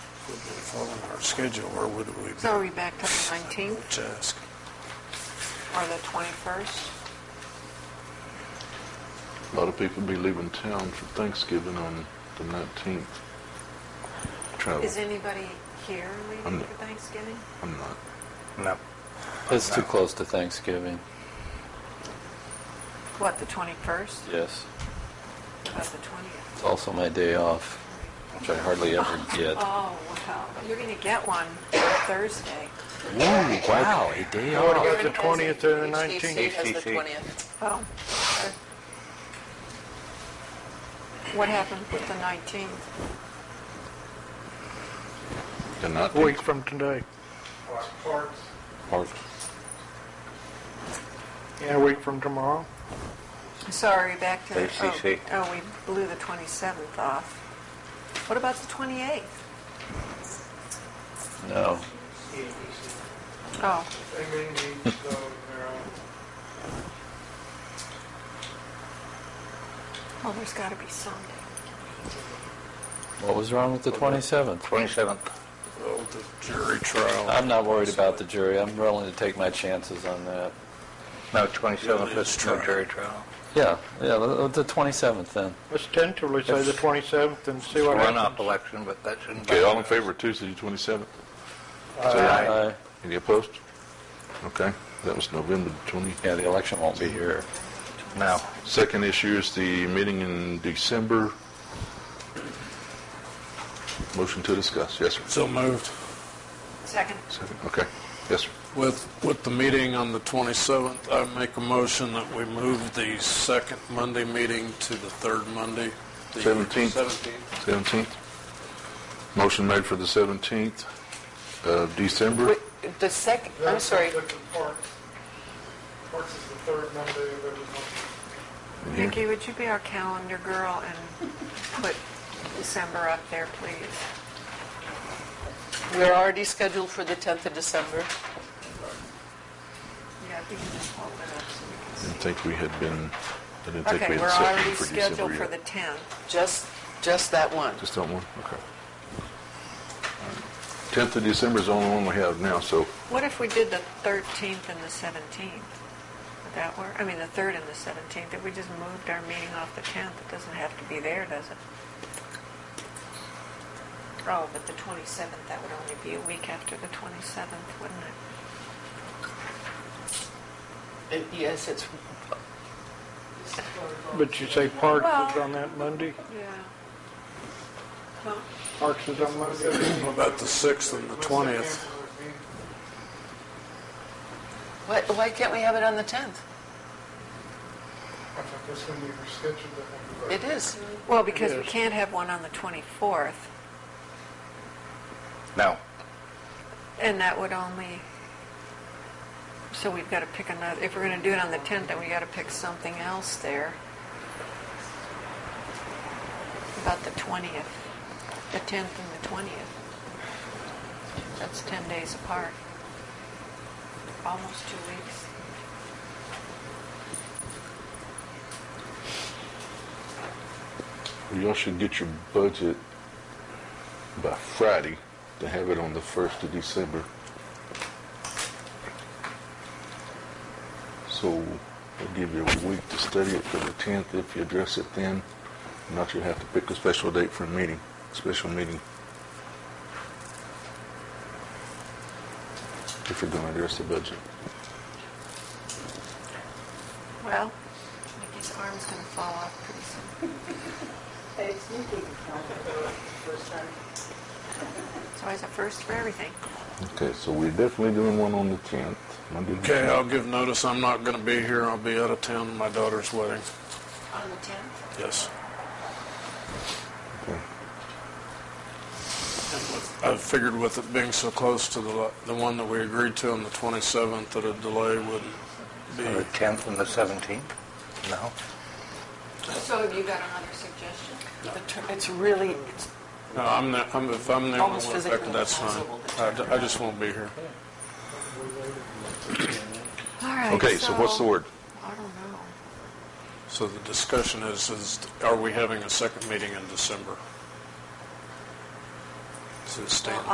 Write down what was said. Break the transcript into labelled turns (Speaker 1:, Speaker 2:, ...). Speaker 1: would be following our schedule, or would we be
Speaker 2: So are we back to the 19th
Speaker 1: on task?
Speaker 2: or the 21st?
Speaker 3: A lot of people be leaving town for Thanksgiving on the 19th. Travel.
Speaker 2: Is anybody here
Speaker 3: Oh. I'm
Speaker 2: leaving
Speaker 3: not.
Speaker 2: for Thanksgiving?
Speaker 3: I'm not.
Speaker 4: No.
Speaker 5: It's too close to Thanksgiving,
Speaker 2: What, the 21st?
Speaker 5: yes.
Speaker 2: What About the 20th?
Speaker 5: It's also my day off, which I hardly ever get.
Speaker 2: Oh, wow. You're going to get one Thursday.
Speaker 5: Ooh, wow, a day
Speaker 4: I would
Speaker 5: off.
Speaker 4: have got Oh, the 20th or the 19th.
Speaker 6: has the
Speaker 4: HTC.
Speaker 6: 20th.
Speaker 2: Oh. What happened with the 19th?
Speaker 3: The 19th.
Speaker 4: Week from today.
Speaker 3: March.
Speaker 4: Yeah, a week from tomorrow.
Speaker 2: Sorry, back to, oh,
Speaker 4: ACC.
Speaker 2: oh, we blew the 27th off. What about the 28th?
Speaker 5: No,
Speaker 2: Oh, well, Oh, there's got to be Sunday.
Speaker 5: what was wrong with the 27th?
Speaker 4: 27th.
Speaker 1: Oh, the jury trial.
Speaker 5: I'm not worried about the jury, I'm willing to take my chances on that.
Speaker 7: No,
Speaker 1: Yeah,
Speaker 7: 27th
Speaker 1: that's
Speaker 7: is no
Speaker 1: true.
Speaker 7: jury trial.
Speaker 5: Yeah, yeah, the the 27th then.
Speaker 4: Let's tentatively say the 27th and see
Speaker 7: It's a
Speaker 4: what
Speaker 7: runoff
Speaker 4: happens.
Speaker 7: election, but that shouldn't
Speaker 3: Okay, all Uh, in
Speaker 7: bother
Speaker 3: favor of Tuesday, the 27th?
Speaker 7: us. Aye.
Speaker 5: Aye.
Speaker 3: Any opposed? Okay, that was November the 20th.
Speaker 5: Yeah, the election won't be here.
Speaker 7: No.
Speaker 3: Second issue is the meeting in December. Motion to discuss, yes, sir.
Speaker 1: So moved.
Speaker 2: Second.
Speaker 3: Second, okay, yes, sir.
Speaker 1: With, with the meeting on the 27th, I make a motion that we move the second Monday meeting to the third Monday. the
Speaker 3: 17th.
Speaker 1: 17th.
Speaker 3: 17th. Motion made for the 17th of December.
Speaker 6: Wait, The second, I'm sorry,
Speaker 3: in here.
Speaker 2: Vicki, would you be our calendar girl and put December up there, please?
Speaker 6: we're already scheduled for the 10th of December.
Speaker 2: Yeah, if you can just hold it up so we can
Speaker 3: I
Speaker 2: see.
Speaker 3: didn't think we had been, I didn't think we
Speaker 2: Okay,
Speaker 3: had
Speaker 2: we're
Speaker 3: set
Speaker 2: already
Speaker 3: for December
Speaker 2: scheduled for the
Speaker 3: yet.
Speaker 2: 10th.
Speaker 6: Just, just that one.
Speaker 3: Just that one, okay. 10th of December is the only one we have now, so
Speaker 2: What if we did the 13th and the 17th? Would that work? I mean, the 3rd and the 17th, if we just moved our meeting off the 10th, it doesn't have to be there, does it? Oh, but the 27th, that would only be a week after the 27th, wouldn't it?
Speaker 6: Uh, Yes, it's,
Speaker 4: But you say Parks is on that Monday?
Speaker 2: Yeah.
Speaker 4: Parks is on Monday?
Speaker 1: What About the 6th and the 20th.
Speaker 6: why, why can't we have it on the 10th? It is.
Speaker 2: Well, because we
Speaker 4: Yes.
Speaker 2: can't have one on the 24th,
Speaker 7: No.
Speaker 2: and that would only, so we've got to pick another, if we're going to do it on the 10th, then we got to pick something else there. About the 20th, the 10th and the 20th. That's 10 days apart. Almost two weeks.
Speaker 3: y'all should get your budget by Friday to have it on the 1st of December. So we'll give you a week to study it for the 10th. If you address it then, not you'll have to pick a special date for a meeting, special meeting. If you're going to address the budget.
Speaker 2: Well, Nikki's arm's going to fall off pretty soon. It's always a first for everything.
Speaker 3: Okay, so we're definitely doing one on the 10th, Monday. the
Speaker 1: Okay,
Speaker 3: 10th.
Speaker 1: I'll give notice, I'm not going to be here, I'll be out of town at my daughter's wedding.
Speaker 2: On the 10th?
Speaker 1: Yes.
Speaker 3: Okay.
Speaker 1: I figured with it being so close to the, the one that we agreed to on the 27th, that a delay would be,
Speaker 7: The
Speaker 3: uh,
Speaker 7: 10th and the 17th? No.
Speaker 2: So have you got another suggestion?
Speaker 6: The ter- It's really, it's
Speaker 1: no, I'm not, I'm, if I'm the only
Speaker 6: Almost
Speaker 1: one
Speaker 6: physically
Speaker 1: affected, that's fine.
Speaker 6: impossible to
Speaker 1: I d- I just won't be here.
Speaker 2: All right,
Speaker 3: Okay, so what's the word?
Speaker 2: I don't know.
Speaker 1: So the discussion is, is are we having a second meeting in December? to the state.